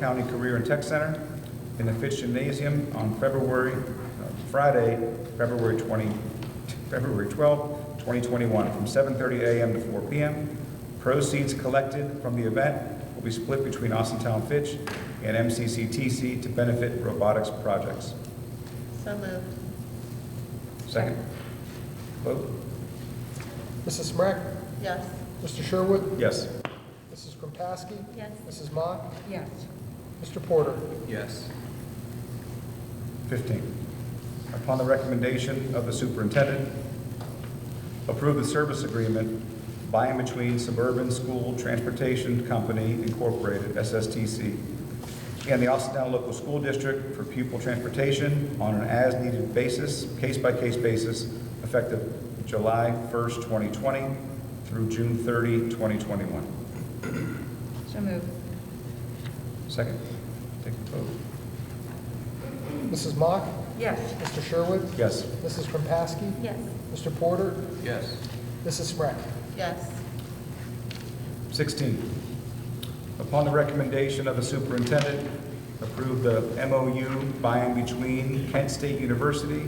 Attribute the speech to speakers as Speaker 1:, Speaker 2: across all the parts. Speaker 1: County Career and Tech Center in the Fitz Gymnasium on February, uh, Friday, February 20, February 12, 2021, from 7:30 a.m. to 4 p.m. Proceeds collected from the event will be split between Austintown Fitch and MCCTC to benefit robotics projects.
Speaker 2: So moved.
Speaker 1: Second? Vote?
Speaker 3: Mrs. Smrek?
Speaker 2: Yes.
Speaker 3: Mr. Sherwood?
Speaker 1: Yes.
Speaker 3: Mrs. Kropaski?
Speaker 2: Yes.
Speaker 3: Mrs. Mock?
Speaker 2: Yes.
Speaker 3: Mr. Porter?
Speaker 4: Yes.
Speaker 1: 15, upon the recommendation of the superintendent, approve the service agreement by and between Suburban School Transportation Company Incorporated, SSTC, and the Austintown Local School District for pupil transportation on an as-needed basis, case-by-case basis, effective July 1st, 2020 through June 30, 2021.
Speaker 2: So moved.
Speaker 1: Second, take the vote.
Speaker 3: Mrs. Mock?
Speaker 2: Yes.
Speaker 3: Mr. Sherwood?
Speaker 1: Yes.
Speaker 3: Mrs. Kropaski?
Speaker 2: Yes.
Speaker 3: Mr. Porter?
Speaker 4: Yes.
Speaker 3: Mrs. Smrek?
Speaker 2: Yes.
Speaker 1: 16, upon the recommendation of the superintendent, approve the MOU by and between Kent State University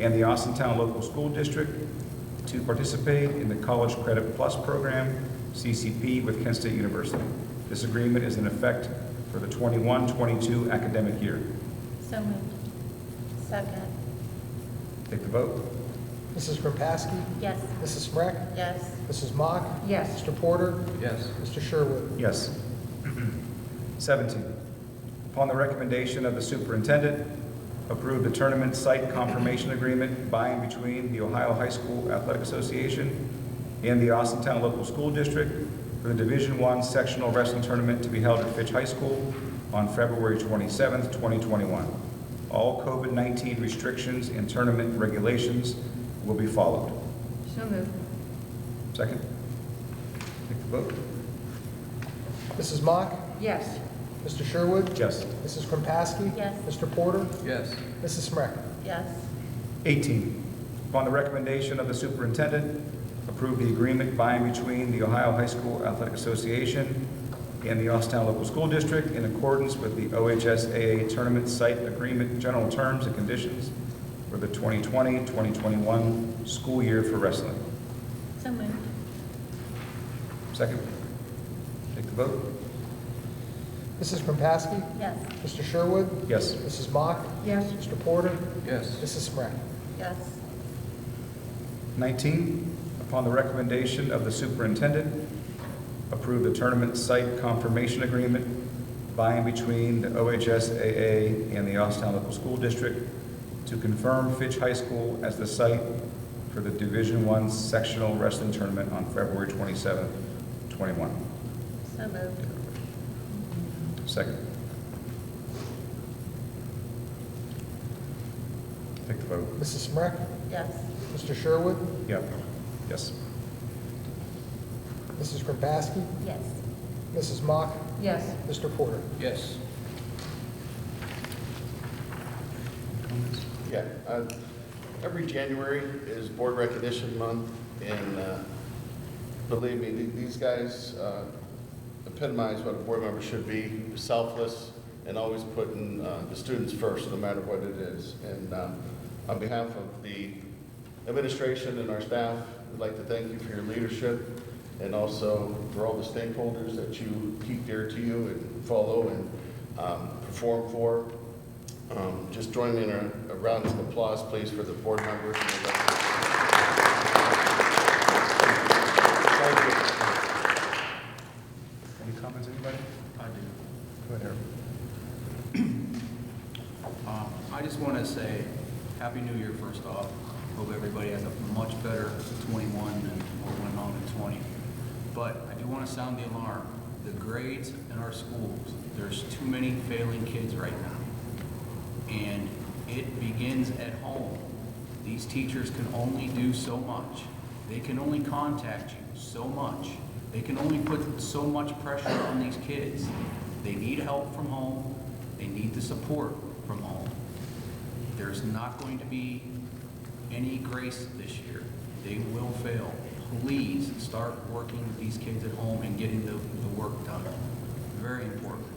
Speaker 1: and the Austintown Local School District to participate in the College Credit Plus Program, CCP, with Kent State University. This agreement is in effect for the 21-22 academic year.
Speaker 2: So moved. Second.
Speaker 1: Take the vote.
Speaker 3: Mrs. Kropaski?
Speaker 2: Yes.
Speaker 3: Mrs. Smrek?
Speaker 2: Yes.
Speaker 3: Mrs. Mock?
Speaker 2: Yes.
Speaker 3: Mr. Porter?
Speaker 4: Yes.
Speaker 3: Mr. Sherwood?
Speaker 1: Yes. 17, upon the recommendation of the superintendent, approve the tournament site confirmation agreement by and between the Ohio High School Athletic Association and the Austintown Local School District for the Division I Sectional Wrestling Tournament to be held at Fitch High School on February 27th, 2021. All COVID-19 restrictions and tournament regulations will be followed.
Speaker 2: So moved.
Speaker 1: Second? Take the vote.
Speaker 3: Mrs. Mock?
Speaker 2: Yes.
Speaker 3: Mr. Sherwood?
Speaker 1: Yes.
Speaker 3: Mrs. Kropaski?
Speaker 2: Yes.
Speaker 3: Mr. Porter?
Speaker 4: Yes.
Speaker 3: Mrs. Smrek?
Speaker 2: Yes.
Speaker 1: 18, upon the recommendation of the superintendent, approve the agreement by and between the Ohio High School Athletic Association and the Austintown Local School District in accordance with the OHSAA Tournament Site Agreement General Terms and Conditions for the 2020-2021 school year for wrestling.
Speaker 2: So moved.
Speaker 1: Second, take the vote.
Speaker 3: Mrs. Kropaski?
Speaker 2: Yes.
Speaker 3: Mr. Sherwood?
Speaker 1: Yes.
Speaker 3: Mrs. Mock?
Speaker 2: Yes.
Speaker 3: Mr. Porter?
Speaker 4: Yes.
Speaker 3: Mrs. Smrek?
Speaker 2: Yes.
Speaker 1: 19, upon the recommendation of the superintendent, approve the tournament site confirmation agreement by and between the OHSAA and the Austintown Local School District to confirm Fitch High School as the site for the Division I Sectional Wrestling Tournament on February 27, 21.
Speaker 2: So moved.
Speaker 1: Second. Take the vote.
Speaker 3: Mrs. Smrek?
Speaker 2: Yes.
Speaker 3: Mr. Sherwood?
Speaker 1: Yep. Yes.
Speaker 3: Mrs. Kropaski?
Speaker 2: Yes.
Speaker 3: Mrs. Mock?
Speaker 2: Yes.
Speaker 3: Mr. Porter?
Speaker 4: Yes.
Speaker 5: Yeah, uh, every January is Board Recognition Month, and uh, believe me, th- these guys uh, epitomize what a board member should be, selfless, and always putting uh, the students first, no matter what it is. And uh, on behalf of the administration and our staff, we'd like to thank you for your leadership, and also for all the stakeholders that you keep dear to you and follow and um, perform for. Um, Just join me in a a round of applause, please, for the board members. Thank you.
Speaker 1: Any comments, anybody?
Speaker 4: I do.
Speaker 1: Go ahead, Eric.
Speaker 4: Um, I just want to say, Happy New Year first off. Hope everybody has a much better '21 than what went on in '20. But I do want to sound the alarm. The grades in our schools, there's too many failing kids right now. And it begins at home. These teachers can only do so much. They can only contact you so much. They can only put so much pressure on these kids. They need help from home. They need the support from home. There's not going to be any grace this year. They will fail. Please start working with these kids at home and getting the, the work done. Very important.